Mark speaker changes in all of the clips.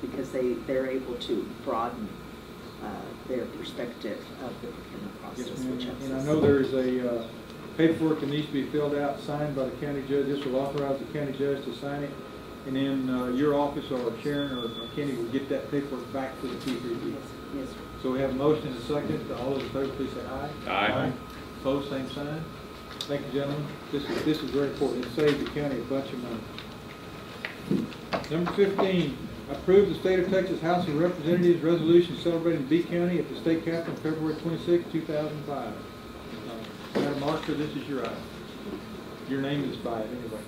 Speaker 1: because they, they're able to broaden uh, their perspective of the procurement
Speaker 2: Yes,
Speaker 1: process,
Speaker 2: ma'am.
Speaker 1: which helps us.
Speaker 2: And I know there's a uh, paperwork that needs to be filled out, signed by the county judge. This will authorize the county judge to sign it. And then uh, your office or Sharon or or Kenny will get that paperwork back to the E.
Speaker 1: Yes,
Speaker 2: PPP.
Speaker 1: yes, sir.
Speaker 2: So we have a motion and a second. All those in favor, please say aye.
Speaker 3: Aye.
Speaker 2: Opposed, same sign. Thank you, gentlemen. This is, this is very important. It saved the county a bunch of money. Number fifteen, approve the State of Texas House of Representatives Resolution celebrating B County at the state capitol February twenty-six, two thousand five. Madam Auditor, this is your item. Your name is by it anyway.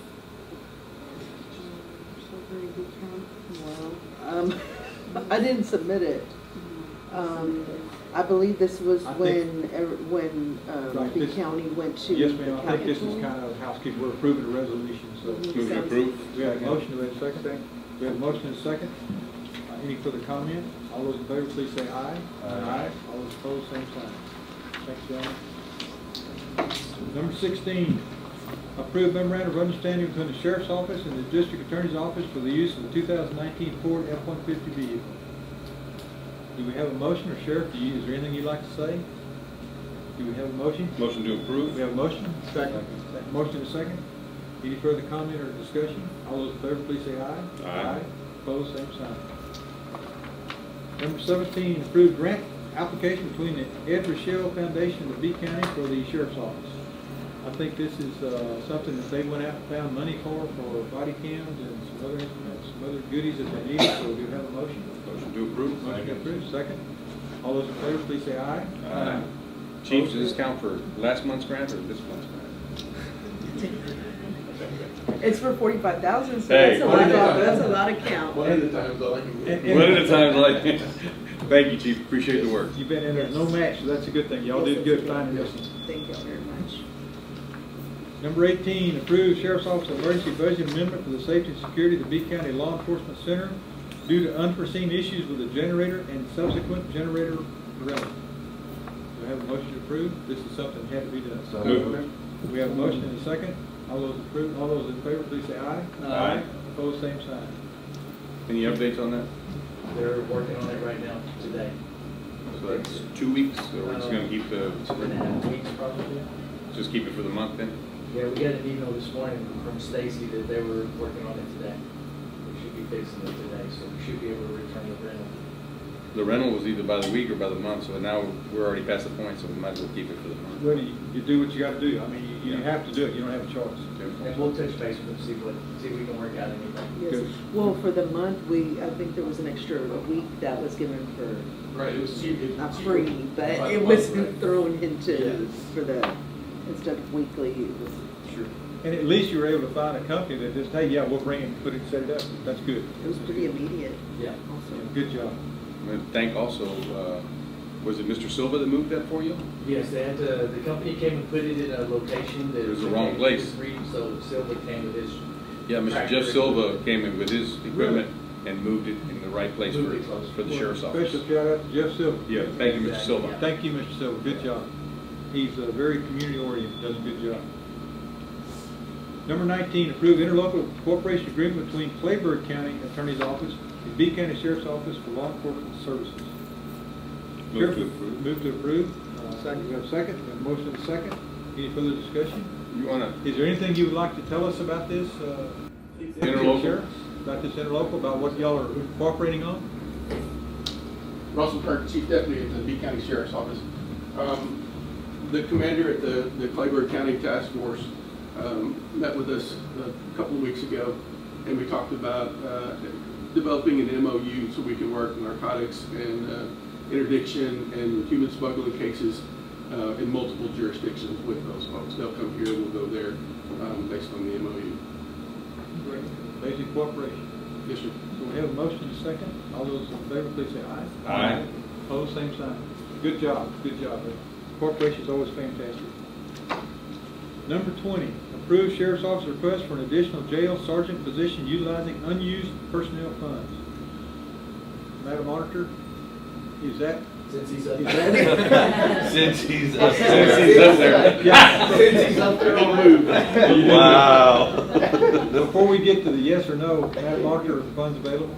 Speaker 4: Um, I didn't submit it. Um, I believe this was
Speaker 2: I think-
Speaker 4: when, ev- when, um,
Speaker 2: Right,
Speaker 4: the
Speaker 2: this-
Speaker 4: county went to
Speaker 2: Yes,
Speaker 4: the
Speaker 2: ma'am, I think this is
Speaker 4: county.
Speaker 2: kind of housekeeping. We're approving a resolution, so.
Speaker 3: Move to approve.
Speaker 2: We have a motion, do we have a second? We have a motion and a second. Uh, Any further comment? All those in favor, please say aye. Aye. All those opposed, same sign. Thanks, gentlemen. Number sixteen, approve memorandum of understanding between the sheriff's office and the district attorney's office for the use of the two thousand nineteen Ford F-150 vehicle. Do we have a motion, or Sheriff, do you, is there anything you'd like to say? Do we have a motion?
Speaker 3: Motion to approve?
Speaker 2: We have a motion? Second. Motion and a second. Any further comment or discussion? All those in favor, please say aye.
Speaker 3: Aye.
Speaker 2: Opposed, same sign. Number seventeen, approved grant application between the Ed Rochelle Foundation of B County for the Sheriff's Office. I think this is, uh, something that they went out and found money for, for body cams and some other instruments, some other goodies that they needed, so do you have a motion?
Speaker 3: Motion to approve?
Speaker 2: Motion approved, second. All those in favor, please say aye.
Speaker 3: Aye. Chief, does Uh, this count for last month's grant or this month's grant?
Speaker 4: It's for forty-five thousand, so
Speaker 3: Hey, that's a
Speaker 2: lot of- that's a
Speaker 4: lot of count.
Speaker 5: One at a time, though, I can.
Speaker 2: And- and-
Speaker 3: One at a time, like, thank you, chief, appreciate the work.
Speaker 2: You've been in there, no match, so that's a good thing. Y'all did good finding this one.
Speaker 4: Thank you very much.
Speaker 2: Number 18, approve Sheriff's Office Emergency Budget Amendment for the Safety and Security of the B County Law Enforcement Center due to unforeseen issues with the generator and subsequent generator rental. Do I have a motion to approve? This is something that had to be done.
Speaker 5: So
Speaker 3: moved.
Speaker 2: We have a motion and a second. All those approve, all those in favor, please say aye.
Speaker 3: Aye.
Speaker 2: Opposed, same sign.
Speaker 3: Any updates on that?
Speaker 5: They're working on it right now, today.
Speaker 3: So that's two weeks, or we're just gonna keep the,
Speaker 5: Two and a half weeks probably.
Speaker 3: just keep it for the month then?
Speaker 5: Yeah, we got an email this morning from Stacy that they were working on it today. They should be fixing it today, so we should be able to return the rental.
Speaker 3: The rental was either by the week or by the month, so now we're already past the point, so we might as well keep it for the month.
Speaker 2: Well, you, you do what you gotta do. I mean, you, you
Speaker 3: Yeah.
Speaker 2: have to do it. You don't have a choice.
Speaker 5: And we'll touch base with them, see what, see if we can work out anything.
Speaker 4: Yes, well, for the month, we, I think there was an extra week that was given for,
Speaker 5: Right, it was cheap.
Speaker 4: not free, but it was thrown into,
Speaker 5: Yeah.
Speaker 4: for the, instead of weekly, it was
Speaker 5: Sure.
Speaker 2: And at least you were able to find a company that just, hey, yeah, we'll bring it, and put it, set it up. That's good.
Speaker 4: It was pretty immediate
Speaker 5: Yeah.
Speaker 2: Yeah,
Speaker 4: also.
Speaker 2: Good job.
Speaker 3: And then thank also, uh, was it Mr. Silva that moved that for you?
Speaker 5: Yes, they had to, the company came and put it in a location that.
Speaker 3: It was the wrong place.
Speaker 5: Free, So Silva came with his.
Speaker 3: Yeah, Mr.
Speaker 5: tractor.
Speaker 3: Jeff Silva came in with his equipment and moved it in the right place
Speaker 5: Moved it
Speaker 3: for,
Speaker 5: closer.
Speaker 3: for the sheriff's office.
Speaker 2: Special shout out to Jeff Silver.
Speaker 3: Yeah, thank you, Mr. Silva.
Speaker 2: Thank you, Mr. Silver, good job. He's uh, very community oriented, does a good job. Number nineteen, approve interlocal cooperation agreement between Clayburgh County Attorney's Office and B County Sheriff's Office for law enforcement services.
Speaker 3: Move to
Speaker 2: Sheriff,
Speaker 3: approve.
Speaker 2: Move to approve. Uh, Second, we have a second, we have a motion and a second. Any further discussion?
Speaker 3: You wanna,
Speaker 2: Is there anything you would like to tell us about this? uh,
Speaker 3: Interlocal.
Speaker 2: Sheriff? About this interlocal, about what y'all are cooperating on?
Speaker 6: Russell Kirk, Chief Deputy at the B County Sheriff's Office. Um, The commander at the the Clayburgh County Task Force um, met with us a couple of weeks ago, and we talked about uh, developing an MOU so we can work narcotics and uh, interdiction and human smuggling cases uh, in multiple jurisdictions with those folks. They'll come here, we'll go there, um, based on the MOU.
Speaker 2: Great. Basic cooperation.
Speaker 6: Yes, sir.
Speaker 2: So we have a motion and a second. All those in favor, please say aye.
Speaker 3: Aye.
Speaker 2: Opposed, same sign. Good job, good job. Corporation's always fantastic. Number twenty, approve sheriff's office request for an additional jail sergeant position utilizing unused personnel funds. Madam Auditor, is that?
Speaker 5: Since he's up.
Speaker 2: is that-
Speaker 7: Since he's
Speaker 3: up
Speaker 7: up
Speaker 3: there.
Speaker 7: there.
Speaker 3: Since he's up there.
Speaker 2: Yeah.
Speaker 5: Since he's up there, I'll move.
Speaker 2: You do.
Speaker 7: Wow.
Speaker 2: Before we get to the yes or no, Madam Auditor, are the funds available?